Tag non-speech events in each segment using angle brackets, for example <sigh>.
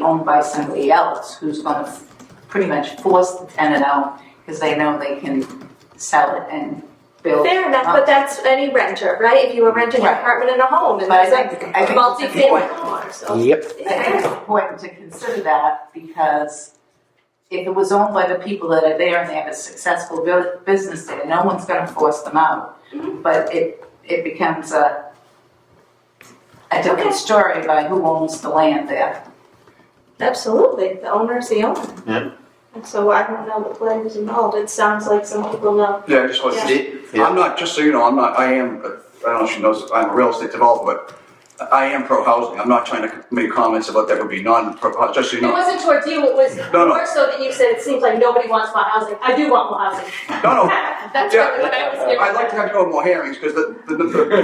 owned by somebody else who's going to pretty much force the tenant out because they know they can sell it and build. Fair enough, but that's any renter, right? If you were renting an Right. apartment in a home and But I there's a think, I think it's multi-family important, home, so. I Yep. think it's important to consider that because if it was owned by the people that are there and they have a successful bu- business there, no one's going to force them out. But it, it becomes a, a different story by who owns the land there. Absolutely, the owner's the owner. Yeah. And so I don't know the players involved, it sounds like some people know. Yeah, I just want to, I'm not, just so you know, I'm not, I am, uh, I don't know if she knows, I'm a real estate developer, but I am pro-housing. I'm not trying to make comments about that would be non-pro, just so It you know. wasn't towards you, it was No, no. more so that you said it seems like nobody wants more housing. I do want more housing. No, no, <laughs> That's Oh. Yeah. really what I was getting I'd like to have you on more hearings because the, the, the.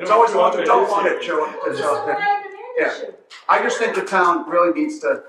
It's always the ones who don't want it, Joe. This that's is out a there. supply and demand Yeah. issue. I just think the town really needs to,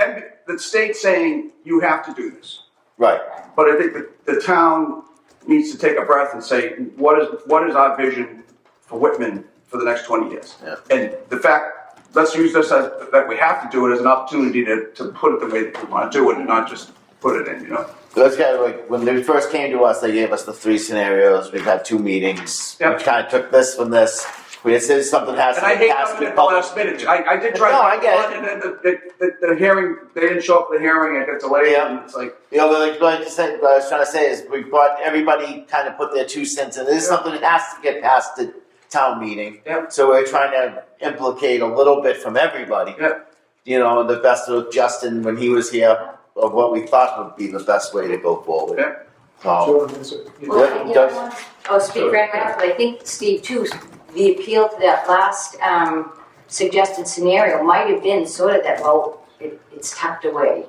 and the state saying, you have to do this. Right. But I think the, the town needs to take a breath and say, what is, what is our vision for Whitman for the next twenty years? Yeah. And the fact, let's use this as, that we have to do it as an opportunity to, to put it the way that we wanna do it and not just put it in, you know? Those guys, like, when they first came to us, they gave us the three scenarios. We've had two meetings. Yep. We kind of took this from this. We said something has And to I be hate passed coming through at the public. last minute, I, I did try. No, I get it. And then the, the, the- the hearing, they didn't show up for the hearing, it got delayed, Yeah. and it's like, You know, like, like I said, what I was trying to say is we brought everybody kind of put their two cents in. This is Yeah. something that has to get past the town meeting. Yep. So we're trying to implicate a little bit from everybody. Yep. You know, the best of Justin when he was here of what we thought would be the best way to go forward. Um, Yep. So, Jordan, is it- yeah, Well, you does- know, what? I'll oh, speak right now, but I think, Steve, too, the appeal to that last um, suggested scenario might have been sort of that, well, it- it's tucked away.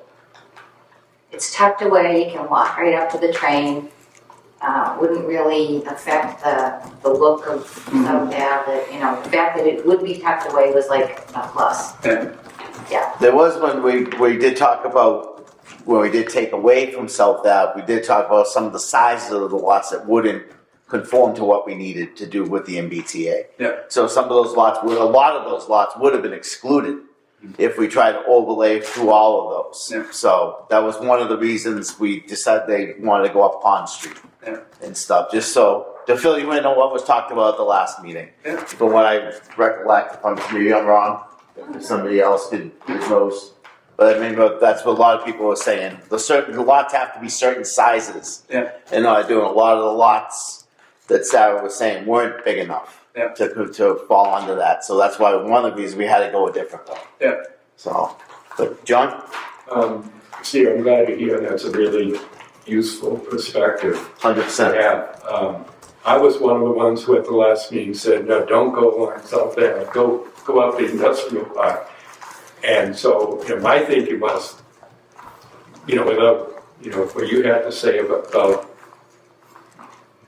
It's tucked away, you can walk right up to the train, uh, wouldn't really uh, affect the, the look of, of that, that, you know, the fact that it would be tucked away was like a plus. There was when we, we did talk about, when we did take away from South Ave, we did talk about some of the sizes of the lots that wouldn't conform to what we needed to do with the MBTA. Yeah. So some of those lots, would a lot of those lots would have been excluded if we tried to overlay through all of those. Yeah. So that was one of the reasons we decided they wanted to go up Pond Street Yeah. and stuff, just so, to fill you in on what was talked about at the last meeting. Yeah. From what I recollect, if I'm, maybe I'm wrong, if somebody else did, knows. But I mean, but that's what a lot of people were saying. The certain the lots have to be certain sizes. Yeah. And I doing a lot of the lots that Sarah was saying weren't big enough Yeah. to to fall under that. So that's why one of the reasons we had to go a different way. Yeah. So, but John, Um, Steve, I'm glad you're here, that's a really useful perspective hundred to percent. have. Um, I was one of the ones who at the last meeting said, no, don't go along South Ave, go, go up the industrial park. And so, you know, my thinking was, you know, without, you know, what you had to say about, about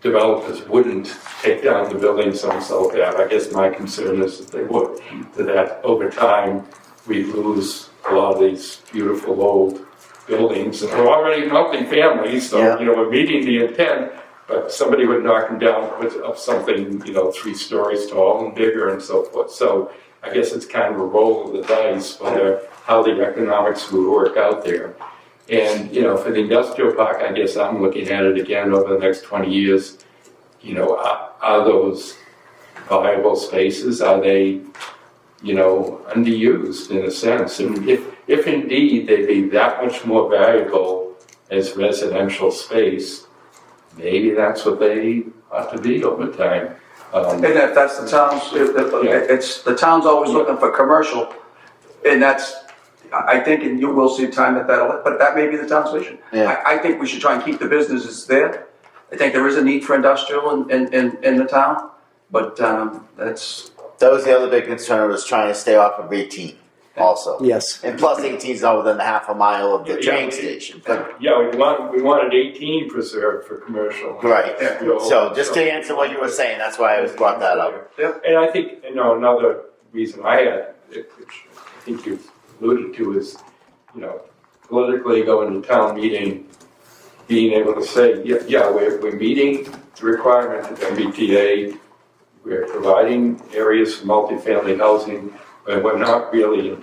developers wouldn't take down the buildings on South Ave, I guess my concern is that they would, that over time, we lose a lot of these beautiful old buildings, and they're already multi-family, Yeah. so, you know, we're meeting the intent, but somebody would knock them down, put up something, you know, three stories tall and bigger and so forth, so I guess it's kind of a roll of the dice, whether, how the economics would work out there. And, you know, for the industrial park, I guess I'm looking at it again over the next twenty years, you know, are, are those viable spaces, are they you know, underused in a sense. And if, if indeed they'd be that much more valuable as residential space, maybe that's what they ought to be over time. Um, And if that's the town's, if, if, Yeah. it's, the town's always looking for commercial, and that's, I I think, and you will see time that that'll, but that may be the town's vision. Yeah. I, I think we should try and keep the businesses there. I think there is a need for industrial in, in, in, in the town, but, um, that's, That was the other big concern was trying to stay off of eighteen also. Yes. And plus eighteen is not within a half a mile of the Yeah. train station. But yeah, we want, we wanted eighteen preserved for commercial. right. Yeah. So just to answer what you were saying, that's why I was brought that up. Yeah. And I think, you know, another reason I had, which I think you alluded to, is, you know, politically going to town meeting, being able to say, yeah, yeah, we're, we're meeting the requirement of MBTA, we're providing areas for multifamily housing, but we're not really